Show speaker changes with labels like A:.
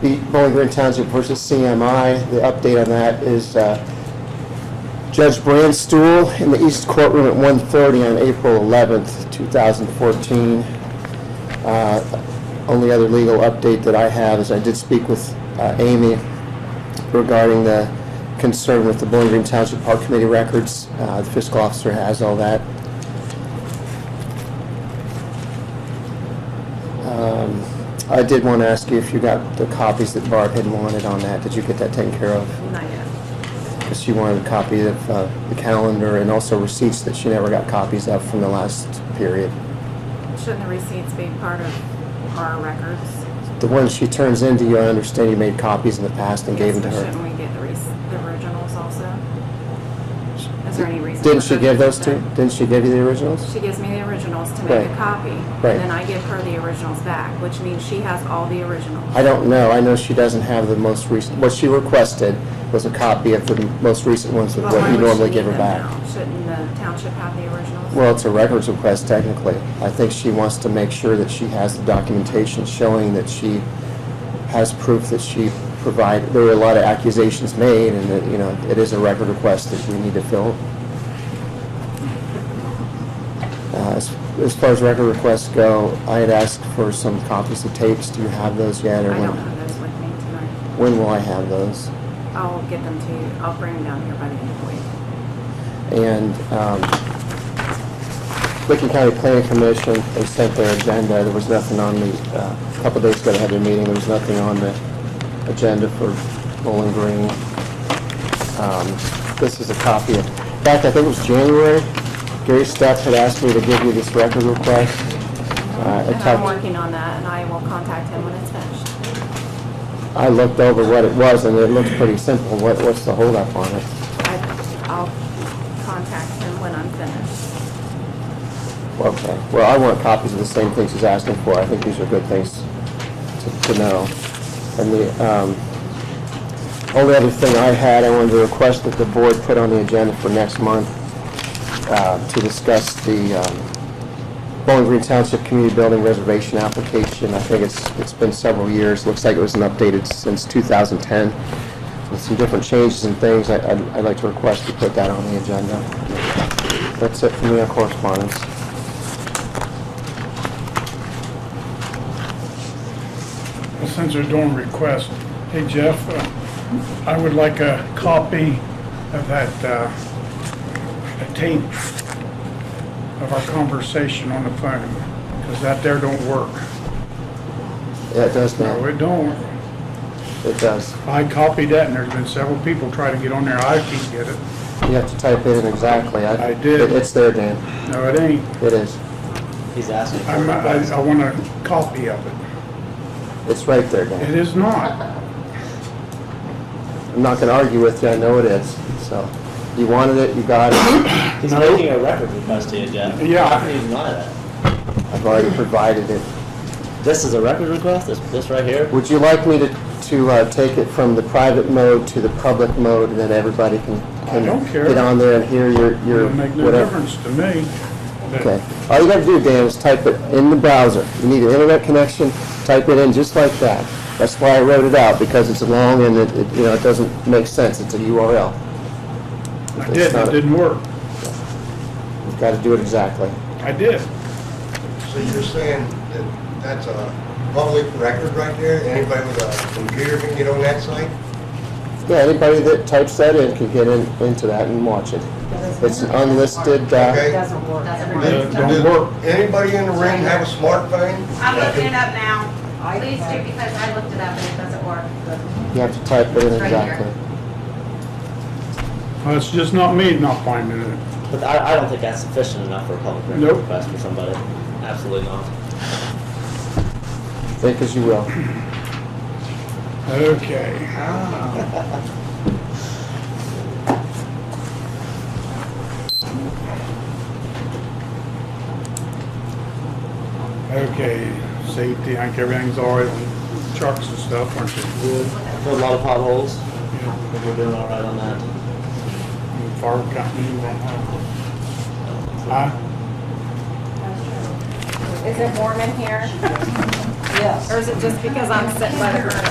A: the Bowling Green Township versus CMI. The update on that is uh, Judge Brandstuhl in the East Courtroom at 1:30 on April 11th, 2014. Uh, Only other legal update that I have is I did speak with uh, Amy regarding the concern with the Bowling Green Township Park Committee records. Uh, The fiscal officer has all that. Um, I did want to ask you if you got the copies that Barb had wanted on that. Did you get that taken care of?
B: Not yet.
A: Because she wanted a copy of uh, the calendar and also receipts that she never got copies of from the last period.
B: Shouldn't the receipts be part of our records?
A: The ones she turns into you, I understand you made copies in the past and gave them to
B: Yes, but
A: her.
B: Shouldn't we get the rec- the originals also? Is there any reason?
A: Didn't
B: for
A: she
B: her
A: give
B: to
A: those to,
B: do
A: didn't she give you the
B: that?
A: originals?
B: She gives me the originals to make a
A: Right.
B: copy. and
A: Right.
B: Then I give her the originals back, which means she has all the originals.
A: I don't know. I know she doesn't have the most recent, what she requested was a copy of the most recent ones with
B: But
A: what
B: why
A: you
B: would she
A: normally
B: need
A: give her
B: them
A: back.
B: now? Shouldn't the township have the originals?
A: Well, it's a records request technically. I think she wants to make sure that she has the documentation showing that she has proof that she provided. There were a lot of accusations made, and that, you know, it is a record request that we need to fill. Uh, As as far as record requests go, I had asked for some copies of tapes. Do you have those yet,
B: I
A: or
B: don't
A: when?
B: have those with me tonight.
A: When will I have those?
B: I'll get them to you. I'll bring them down here by the end of the week.
A: And um, Licking County Planning Commission, they sent their agenda, there was nothing on the, uh, a couple days ago they had their meeting, there was nothing on the agenda for Bowling Green. Um, This is a copy of, in fact, I think it was January, Gary Steph had asked me to give you this record request. Uh, I
B: And I'm
A: talked-
B: working on that, and I will contact him when it's finished.
A: I looked over what it was, and it looked pretty simple, what, what's the holdup on it?
B: I- I'll contact him when I'm finished.
A: Okay, well, I want copies of the same things he's asking for, I think these are good things to to know. And the, um, only other thing I had, I wanted to request that the board put on the agenda for next month uh, to discuss the um, Bowling Green Township Community Building Reservation application. I think it's, it's been several years, looks like it was not updated since 2010, with some different changes and things. I- I'd I'd like to request to put that on the agenda. That's it for me on correspondence.
C: Since they're doing requests, hey Jeff, uh, I would like a copy of that uh, tape of our conversation on the phone, because that there don't work.
A: Yeah, it does
C: No,
A: now.
C: it don't.
A: It does.
C: I copied that, and there's been several people trying to get on there, I can't get it.
A: You have to type it in exactly.
C: I did.
A: It- It's there, Dan.
C: No, it ain't.
A: It is.
D: He's asking for
C: I'm- I
D: requests.
C: I want a copy of it.
A: It's right there,
C: It
A: Dan.
C: is not.
A: I'm not gonna argue with you, I know it is, so. You wanted it, you got it.
D: He's making a record request to you, Jeff.
C: Yeah.
D: How can you deny that?
A: I've already provided it.
D: This is a record request, this, this right here?
A: Would you like me to, to uh, take it from the private mode to the public mode, and then everybody can, can
C: don't care.
A: get on there and hear your, your,
C: It'll make no
A: whatever?
C: difference to me. but-
A: Okay. All you gotta do, Dan, is type it in the browser. You need an internet connection, type it in just like that. That's why I wrote it out, because it's long and it, it, you know, it doesn't make sense. It's a URL.
C: I did, it didn't work.
A: You've got to do it exactly.
C: I did.
E: So you're saying that that's a public record right there? Anybody with a computer can get on that site?
A: Yeah, anybody that types that in can get in, into that and watch it. It's an unlisted, uh,
E: Okay.
B: Doesn't work.
C: It don't
E: Does
C: work.
E: Anybody in the room have a smartphone?
F: I'm looking it up now. Please do, because I looked it up and it doesn't work.
A: you have to type it in
F: It's right here.
A: exactly.
C: Well, It's just not me not finding it.
D: But I, I don't think that's sufficient enough for a public record
C: Nope.
D: request for somebody. Absolutely not.
A: Think as you will.
C: Okay. Ah. Okay, safety, I think everything's all right on trucks and stuff, aren't you?
D: Good. There are a lot of potholes,
C: Yeah.
D: but we're doing all right on that.
C: And Fire company, you don't have. Huh?
B: Is it warm in here? Yes. Or is it just because I'm sitting by the current?